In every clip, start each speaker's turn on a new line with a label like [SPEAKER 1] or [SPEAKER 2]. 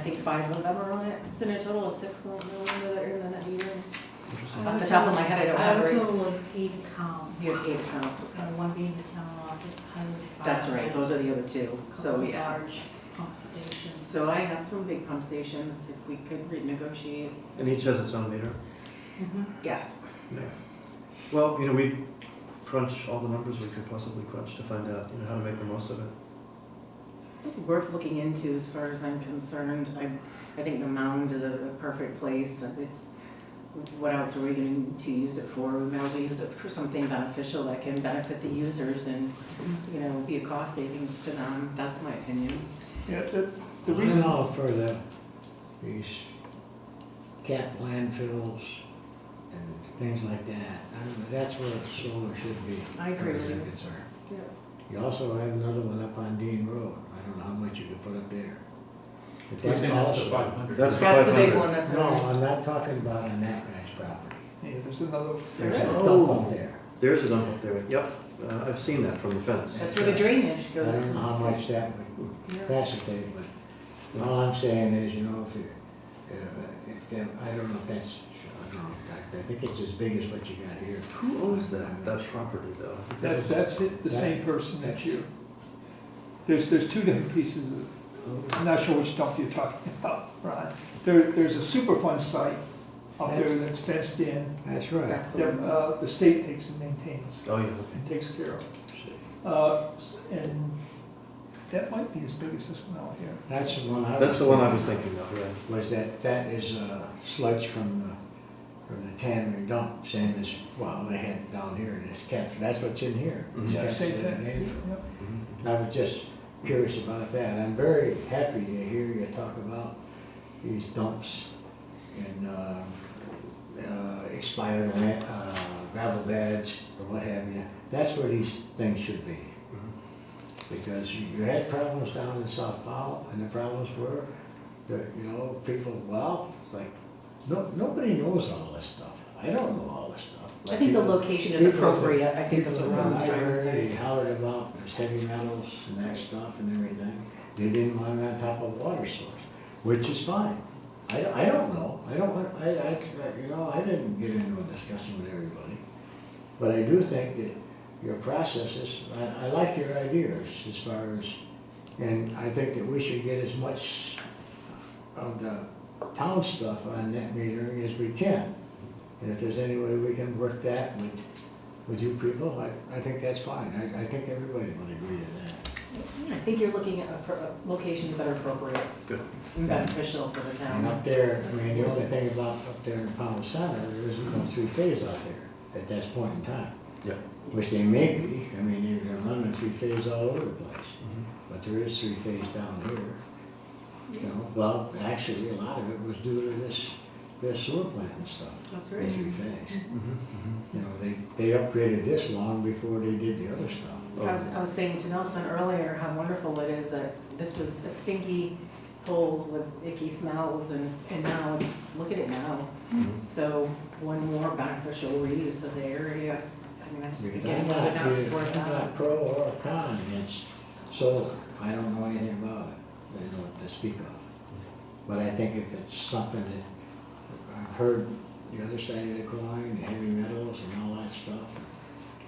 [SPEAKER 1] think five of them are on it. So in a total of six, no, no wonder that you're in that meeting.
[SPEAKER 2] Interesting.
[SPEAKER 1] Off the top of my head, I don't
[SPEAKER 3] I have
[SPEAKER 1] have
[SPEAKER 3] a
[SPEAKER 1] it.
[SPEAKER 3] total of eight columns,
[SPEAKER 1] You have eight pounds.
[SPEAKER 3] and one being the town office, highway department.
[SPEAKER 1] That's right, those are the other two, so
[SPEAKER 3] couple
[SPEAKER 1] yeah.
[SPEAKER 3] Large pump stations.
[SPEAKER 1] So I have some big pump stations that we could renegotiate.
[SPEAKER 2] And each has its own meter?
[SPEAKER 3] Mhm.
[SPEAKER 1] Yes,
[SPEAKER 2] Yeah. Well, you know, we crunch all the numbers we could possibly crunch to find out, you know, how to make the most of it.
[SPEAKER 1] worth looking into as far as I'm concerned. I, I think the mound is a a perfect place. and It's, what else are we going to use it for? We might as well use it for something beneficial that can benefit the users and, you know, be a cost savings to them. That's my opinion.
[SPEAKER 4] Yeah, the, the
[SPEAKER 5] And
[SPEAKER 4] reason,
[SPEAKER 5] all for the, these cap landfills and things like that. I mean, that's where solar should be.
[SPEAKER 1] I agree with you.
[SPEAKER 5] as is concerned.
[SPEAKER 1] Yeah.
[SPEAKER 5] You also have another one up on Dean Road. I don't know how much you could put up there. But
[SPEAKER 6] You're saying that's the
[SPEAKER 5] also-
[SPEAKER 6] five hundred?
[SPEAKER 2] That's-
[SPEAKER 1] That's the big
[SPEAKER 2] 500.
[SPEAKER 1] one, that's.
[SPEAKER 5] No, I'm not talking about on that guy's property.
[SPEAKER 4] yeah, there's another,
[SPEAKER 5] There's
[SPEAKER 1] There
[SPEAKER 5] a
[SPEAKER 1] is.
[SPEAKER 5] dump up there.
[SPEAKER 2] There is a dump up there, yep, uh, I've seen that from the fence.
[SPEAKER 1] That's where the drainage
[SPEAKER 5] I
[SPEAKER 1] goes.
[SPEAKER 5] don't know how much that would
[SPEAKER 1] Yeah.
[SPEAKER 5] facilitate, but all I'm saying is, you know, if you, uh, if, if, them- I don't know if that's, I don't know, I think it's as big as what you got here.
[SPEAKER 2] Who owns that, that property though? I think that
[SPEAKER 4] that's,
[SPEAKER 2] was-
[SPEAKER 4] that's it, the same person that's you. There's, there's two different pieces of, I'm not sure which dump you're talking about, Ron. There, there's a Superfund site up there that's fenced in,
[SPEAKER 5] That's right.
[SPEAKER 1] That's the
[SPEAKER 4] that,
[SPEAKER 1] one.
[SPEAKER 4] uh, the state takes and maintains
[SPEAKER 2] Oh, yeah,
[SPEAKER 4] and takes care of. Uh, s- and that might be as big as this one out here.
[SPEAKER 5] That's the one I was.
[SPEAKER 2] that's the one I was thinking of, yeah.
[SPEAKER 5] Was that, that is uh, sludge from the, from the tannery dump, same as, well, they had down here in this cap, that's what's in here.
[SPEAKER 2] Mhm.
[SPEAKER 5] It's
[SPEAKER 2] Yeah,
[SPEAKER 4] Same
[SPEAKER 5] captured in
[SPEAKER 4] thing,
[SPEAKER 5] April.
[SPEAKER 4] yep.
[SPEAKER 2] Mhm.
[SPEAKER 5] And I was just curious about that. I'm very happy to hear you talk about these dumps and uh, uh, expired la- uh, gravel beds or what have you. That's where these things should be. Because you you had problems down in South Powell, and the problems were that, you know, people, well, it's like, no, nobody knows all this stuff. I don't know all this stuff.
[SPEAKER 1] I think the
[SPEAKER 5] Like, you know,
[SPEAKER 1] location is
[SPEAKER 5] People at the-
[SPEAKER 1] appropriate, I think that's what
[SPEAKER 5] people at the
[SPEAKER 1] Ron's trying to
[SPEAKER 5] library, They
[SPEAKER 1] say.
[SPEAKER 5] hollered about there's heavy metals and that stuff and everything. They didn't want it on top of water source, which is fine. I, don't- I don't know. I don't want, I, I, you know, I didn't get into a discussion with everybody. But I do think that your process is, I, I like your ideas as far as, and I think that we should get as much of the town stuff on net metering as we can. And if there's any way we can work that with, with you people, I, I think that's fine. I, I think everybody will agree to that.
[SPEAKER 1] I think you're looking at appro- locations that are appropriate.
[SPEAKER 2] Good.
[SPEAKER 1] And beneficial for the
[SPEAKER 5] And
[SPEAKER 6] Mm-hmm.
[SPEAKER 1] town.
[SPEAKER 5] up there, I mean, the only thing about up there in Pownell Center, there isn't no three phase out there at this point in time.
[SPEAKER 2] Yeah.
[SPEAKER 5] Which they may be, I mean, you're gonna run a three phase all over the place,
[SPEAKER 2] Mhm.
[SPEAKER 5] but there is three phase down here. You know, well, actually, a lot of it was due to this, this sewer plant and stuff,
[SPEAKER 1] That's
[SPEAKER 5] the
[SPEAKER 1] right.
[SPEAKER 5] three phase.
[SPEAKER 2] Mhm. Mhm.
[SPEAKER 5] You know, they, they upgraded this long before they did the other stuff.
[SPEAKER 6] Oh.
[SPEAKER 1] I was, I was saying to Nelson earlier how wonderful it is that this was a stinky holes with icky smells and, and now it's, look at it now.
[SPEAKER 2] Mhm.
[SPEAKER 1] So one more beneficial reuse of the area. I mean, I-
[SPEAKER 5] Because
[SPEAKER 1] again,
[SPEAKER 5] I'm
[SPEAKER 1] I
[SPEAKER 5] not,
[SPEAKER 1] would not
[SPEAKER 5] either-
[SPEAKER 1] support
[SPEAKER 5] I'm
[SPEAKER 1] that.
[SPEAKER 5] not pro or con against solar, I don't know anything about it, I don't know to speak of. But I think if it's something that, I've heard the other side of the coin, the heavy metals and all that stuff,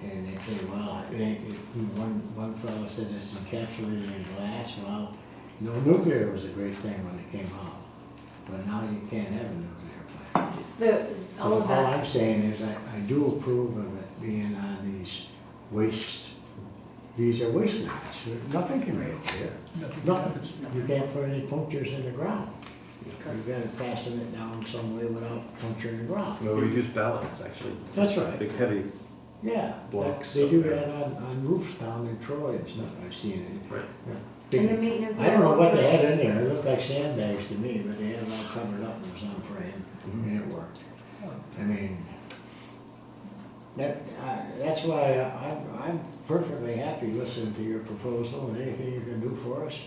[SPEAKER 5] and they say, well, it ain't, it- one, one fellow said it's encapsulated in glass, well, no, nuclear was a great thing when it came out, but now you can't have a nuclear plant.
[SPEAKER 1] The,
[SPEAKER 5] So
[SPEAKER 1] all of
[SPEAKER 5] all
[SPEAKER 1] that,
[SPEAKER 5] I'm saying is I, I do approve of it being on these waste, these are waste lots. Nothing can be up there.
[SPEAKER 4] Nothing happens.
[SPEAKER 5] Nothing. You can't put any punctures in the ground. You've got to fasten it down some way without puncturing the ground.
[SPEAKER 2] Well, we use ballasts, actually.
[SPEAKER 5] That's right.
[SPEAKER 2] Big heavy,
[SPEAKER 5] Yeah.
[SPEAKER 2] Blocks
[SPEAKER 5] They do
[SPEAKER 2] up there.
[SPEAKER 5] that on, on roofs down in Troy and stuff. I've seen it.
[SPEAKER 2] right?
[SPEAKER 5] Yeah.
[SPEAKER 1] and the maintenance. of
[SPEAKER 5] I don't know what they
[SPEAKER 1] that.
[SPEAKER 5] had in there. It looked like sandbags to me, but they had it all covered up and it was on frame and it worked. I mean, that, I- that's why I- I'm, I'm perfectly happy listening to your proposal and anything you can do for us.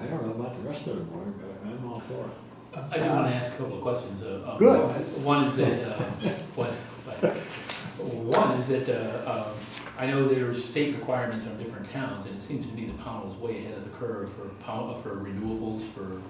[SPEAKER 5] I don't know about the rest of the board, but I'm all for it.
[SPEAKER 6] I do want to ask a couple of questions. uh, um,
[SPEAKER 5] Good.
[SPEAKER 6] One is that, uh, what, what- one is that, uh, um, I know there's state requirements on different towns, and it seems to me that Powell's way ahead of the curve for pow- for renewables, for